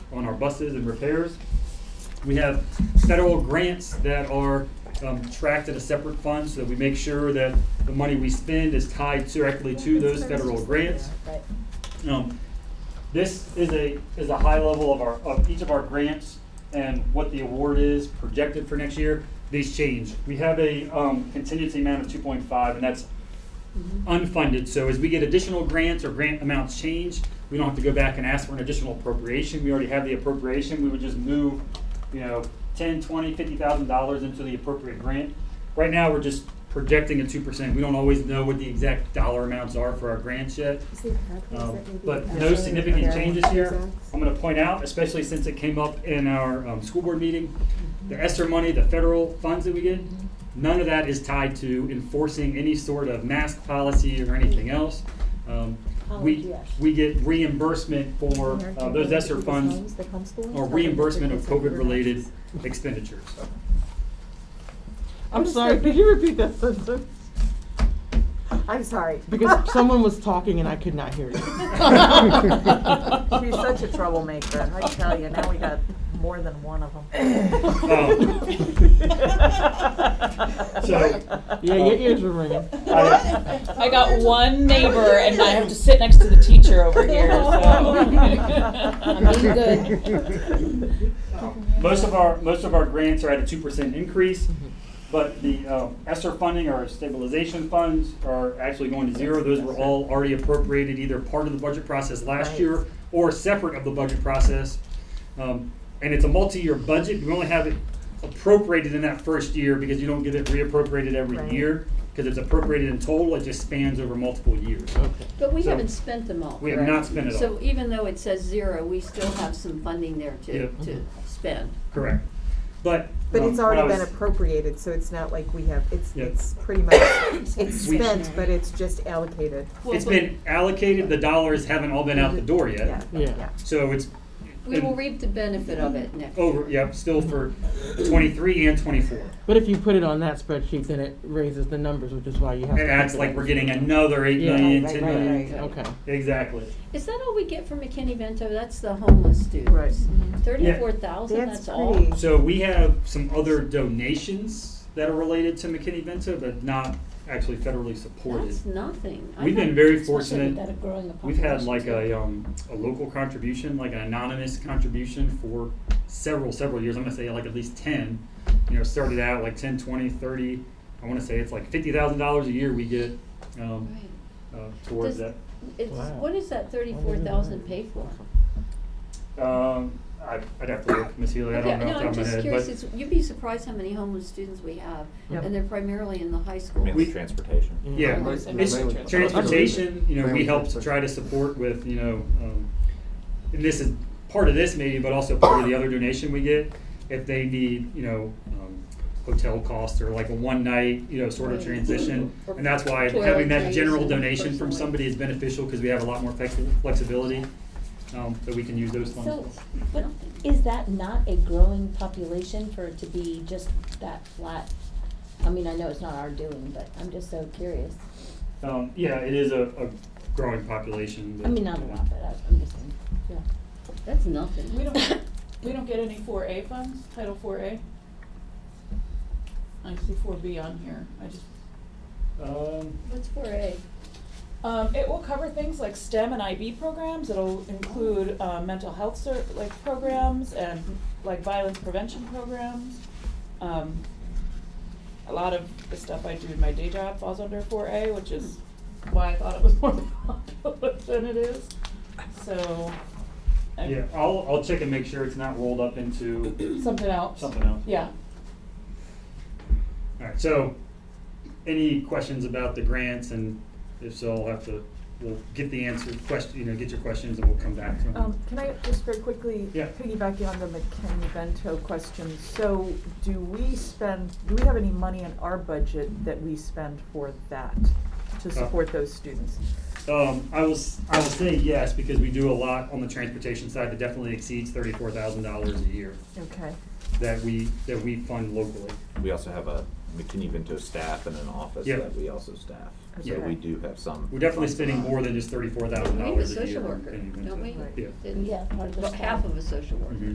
on our buses and repairs. We have federal grants that are um, tracked at a separate fund so that we make sure that the money we spend is tied directly to those federal grants. Um, This is a, is a high level of our, of each of our grants and what the award is projected for next year. These change. We have a um, contingency amount of two point five, and that's Um, unfunded. So as we get additional grants or grant amounts changed, we don't have to go back and ask for an additional appropriation. We already have the appropriation. We would just move, you know, ten, twenty, fifty thousand dollars into the appropriate grant. Right now, we're just projecting a two percent. We don't always know what the exact dollar amounts are for our grants yet. Um, But no significant changes here. I'm gonna point out, especially since it came up in our, um, school board meeting, the ESSER money, the federal funds that we get, none of that is tied to enforcing any sort of mask policy or anything else. Um, we, we get reimbursement for, uh, those ESSER funds or reimbursement of COVID-related expenditures. I'm sorry, could you repeat that sentence? I'm sorry. Because someone was talking and I could not hear you. She's such a troublemaker, I tell you, now we got more than one of them. Um, So- um, Yeah, your ears were ringing. I- I got one neighbor and I have to sit next to the teacher over here, so. I'm being good. Most of our, most of our grants are at a two percent increase, but the um, ESSER funding or stabilization funds are actually going to zero. Those were all already appropriated, either part of the budget process last Right. year or separate of the budget process. Um, And it's a multi-year budget. We only have it appropriated in that first year because you don't get it reappropriated every Right. year. Because it's appropriated in total, it just spans over multiple years. Okay. But we So- haven't spent them all. We have correct? not spent it all. So even though it says zero, we still have some funding there to, Yeah. to spend. Correct. But. But um, it's when I already been was- appropriated, so it's not like we have, it's, Yeah. it's pretty much, it's We- spent, but it's just allocated. Well, It's but been allocated, the dollars haven't all been out the door yet. Yeah, Yeah. yeah. So it's. We will reap the benefit of it next year. Over, yep, still for twenty-three and twenty-four. But if you put it on that spreadsheet, then it raises the numbers, which is why you have. It to acts put like we're up. getting another eight Yeah. million, Right, ten right, million. right. Okay. Exactly. Is that all we get from McKinney-Vento? That's the homeless students. Right. Mm-hmm. Thirty-four thousand, That's that's all? pretty- So we have some other donations that are related to McKinney-Vento, but not actually federally supported. That's nothing. I We've thought- been very Especially with that fortunate. a growing We've had population, like a, too. um, a local contribution, like an anonymous contribution for several, several years. I'm gonna say like at least ten. You know, started out like ten, twenty, thirty. I wanna say it's like fifty thousand dollars a year we get, um, Right. uh, towards Does- that. It's, Wow. what is that thirty-four thousand pay for? Um, I, I'd have to look, Miss Healy, I Okay, don't know off the top I'm of my just head, curious, but it's, you'd be surprised how many homeless students we have, Yep. and they're primarily in the high schools. Mainly transportation. yeah, Right, it's and mainly transportation, you know, we Mainly help to try to support with, you know, um, and this is part of this maybe, but also part of the other donation we get. If they need, you know, um, hotel costs or like a one night, you know, sort of Right. transition. Or And that's why having that toiletries general and donation from personal- somebody is beneficial because we have a lot more flexi- flexibility, um, that we can use those funds. So, for. but is that not a growing population for it to be just that flat? I mean, I know it's not our doing, but I'm just so curious. Um, yeah, it is a, a growing population. but- I mean, not a lot, but I- I'm just saying, yeah. That's nothing. We don't, we don't get any four A funds, Title four A? I see four B on here, I just. Um, What's for a? Um, it will cover things like STEM and IB programs, it'll include, uh, mental health ser- like programs and like violence prevention programs. Um, a lot of the stuff I do in my day job falls under four A, which is why I thought it was more popular than it is, so. uh, I- yeah, I'll, I'll check and make sure it's not rolled up into Something else. something else. Yeah. All right, so any questions about the grants and if so, I'll have to, we'll get the answer, question, you know, get your questions and we'll come back to them. Um, can I just very quickly Yeah. piggyback you on the McKinney-Vento question? So do we spend, do we have any money in our budget that we spend for that, Uh. to support those students? Um, I will, s- I will say yes, because we do a lot on the transportation side that definitely exceeds thirty-four thousand dollars a year Okay. that we, that we fund locally. We also have a McKinney Vento staff and an office Yeah. that we also staff. So Yeah. we do have some. We're definitely funds spending on- more than just thirty-four thousand We have a dollars a year. social in- worker, in- don't we? Yeah. Didn't- Yeah, part of the Well, staff. half of a social worker. Mhm.